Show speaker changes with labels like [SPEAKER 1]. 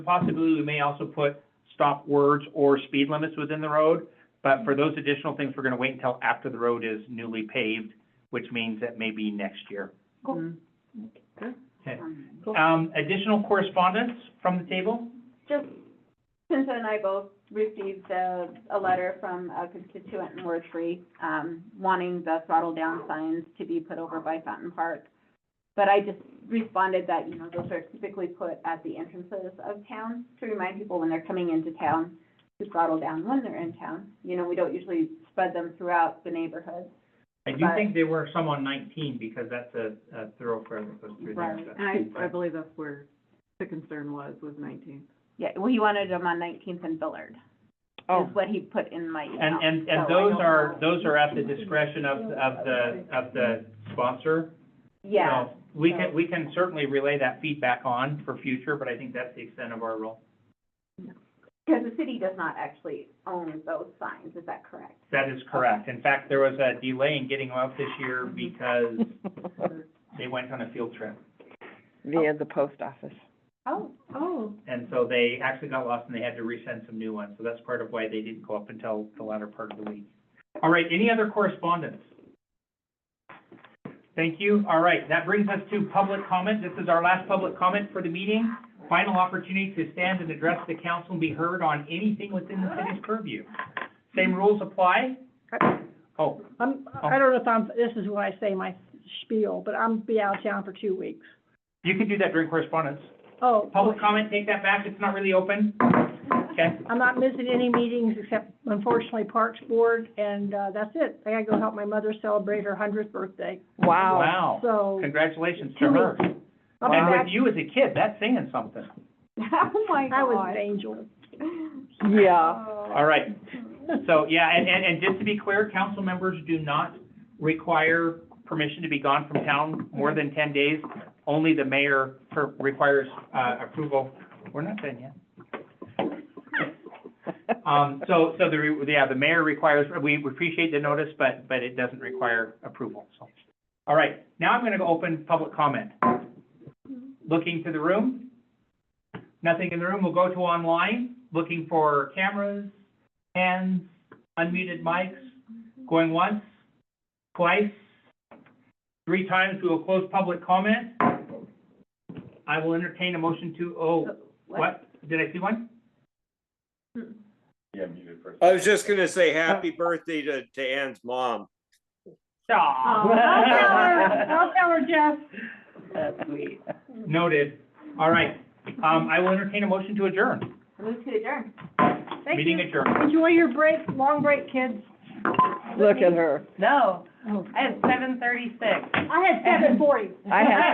[SPEAKER 1] Possibly, we may also put stop words or speed limits within the road, but for those additional things, we're gonna wait until after the road is newly paved, which means that may be next year.
[SPEAKER 2] Cool.
[SPEAKER 3] Mm.
[SPEAKER 2] Good.
[SPEAKER 1] Okay.
[SPEAKER 2] Cool.
[SPEAKER 1] Um, additional correspondence from the table?
[SPEAKER 3] Just, Cynthia and I both received a, a letter from a constituent in Ward Three, um, wanting the throttle down signs to be put over by Fountain Park. But I just responded that, you know, those are typically put at the entrances of town to remind people when they're coming into town to throttle down when they're in town. You know, we don't usually spread them throughout the neighborhood.
[SPEAKER 1] I do
[SPEAKER 3] Right.
[SPEAKER 1] think there were some on nineteen, because that's a, a thoroughfare that goes through there.
[SPEAKER 3] Right.
[SPEAKER 1] so-
[SPEAKER 2] And I, I believe that's where the concern was, was nineteen.
[SPEAKER 3] Yeah, well, he wanted them on Nineteenth and Billard, is what he put in my email.
[SPEAKER 1] Oh. And, and,
[SPEAKER 3] so oh. I
[SPEAKER 1] and those
[SPEAKER 3] don't
[SPEAKER 1] are,
[SPEAKER 3] know.
[SPEAKER 1] those are at the discretion of, of the, of the sponsor.
[SPEAKER 3] Yeah,
[SPEAKER 1] So We
[SPEAKER 3] so-
[SPEAKER 1] can, we can certainly relay that feedback on for future, but I think that's the extent of our role.
[SPEAKER 3] Because the city does not actually own those signs, is that correct?
[SPEAKER 1] That is correct. In fact, there was a delay in getting them out this year because they went on a field trip.
[SPEAKER 4] via the post office.
[SPEAKER 3] Oh,
[SPEAKER 2] Oh.
[SPEAKER 1] And so they actually got lost and they had to resend some new ones. So that's part of why they didn't go up until the latter part of the week. All right, any other correspondence? Thank you. All right, that brings us to public comment. This is our last public comment for the meeting. Final opportunity to stand and address the council and be heard on anything within the city's purview. Same rules apply? Oh,
[SPEAKER 5] I'm, I don't know if I'm, this is when I say my spiel, but I'm be out of town for two weeks.
[SPEAKER 1] you can do that during correspondence.
[SPEAKER 5] Oh,
[SPEAKER 1] Public comment, take that back, it's not really open. Okay,
[SPEAKER 5] I'm not missing any meetings except unfortunately Parks Board, and, uh, that's it. I gotta go help my mother celebrate her hundredth birthday,
[SPEAKER 4] Wow.
[SPEAKER 1] wow,
[SPEAKER 5] so.
[SPEAKER 1] congratulations to
[SPEAKER 5] Two
[SPEAKER 1] her.
[SPEAKER 5] weeks. I'll be
[SPEAKER 1] And
[SPEAKER 5] back.
[SPEAKER 1] with you as a kid, that's saying something.
[SPEAKER 3] oh my Oh.
[SPEAKER 5] I was an
[SPEAKER 3] God.
[SPEAKER 5] angel.
[SPEAKER 4] Yeah.
[SPEAKER 1] All right, so, yeah, and, and, and just to be clear, council members do not require permission to be gone from town more than ten days. Only the mayor per- requires, uh, approval. We're not done yet. Um, so, so the, re- yeah, the mayor requires, we we appreciate the notice, but, but it doesn't require approval, so. All right, now I'm gonna go open public comment. Looking to the room? Nothing in the room, we'll go to online, looking for cameras, hands, unmuted mics, going once, twice, three times, we will close public comment. I will entertain a motion to, oh, what? Did I see one?
[SPEAKER 6] I was just gonna say happy birthday to, to Ann's mom.
[SPEAKER 1] Aw.
[SPEAKER 5] I'll tell her, I'll tell her, Jeff.
[SPEAKER 4] That's sweet.
[SPEAKER 1] Noted. All right. Um, I will entertain a motion to adjourn.
[SPEAKER 3] Move to adjourn.
[SPEAKER 5] Thank
[SPEAKER 1] Meeting
[SPEAKER 5] you.
[SPEAKER 1] adjourned.
[SPEAKER 5] Enjoy your break, long break, kids.
[SPEAKER 4] Look at her.
[SPEAKER 7] No, I have seven thirty-six.
[SPEAKER 5] I had seven forty.
[SPEAKER 4] I had